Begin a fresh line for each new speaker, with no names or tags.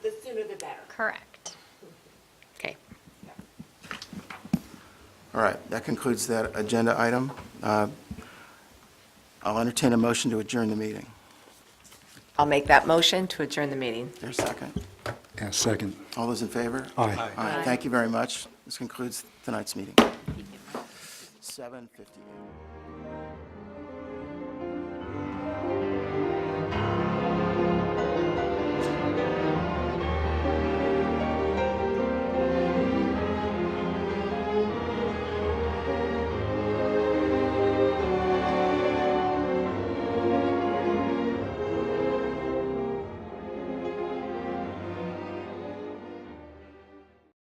Correct.
Okay.
All right, that concludes that agenda item. Uh, I'll entertain a motion to adjourn the meeting.
I'll make that motion to adjourn the meeting.
There's a second.
Yeah, second.
All those in favor?
Aye.
All right, thank you very much. This concludes tonight's meeting. 7:50.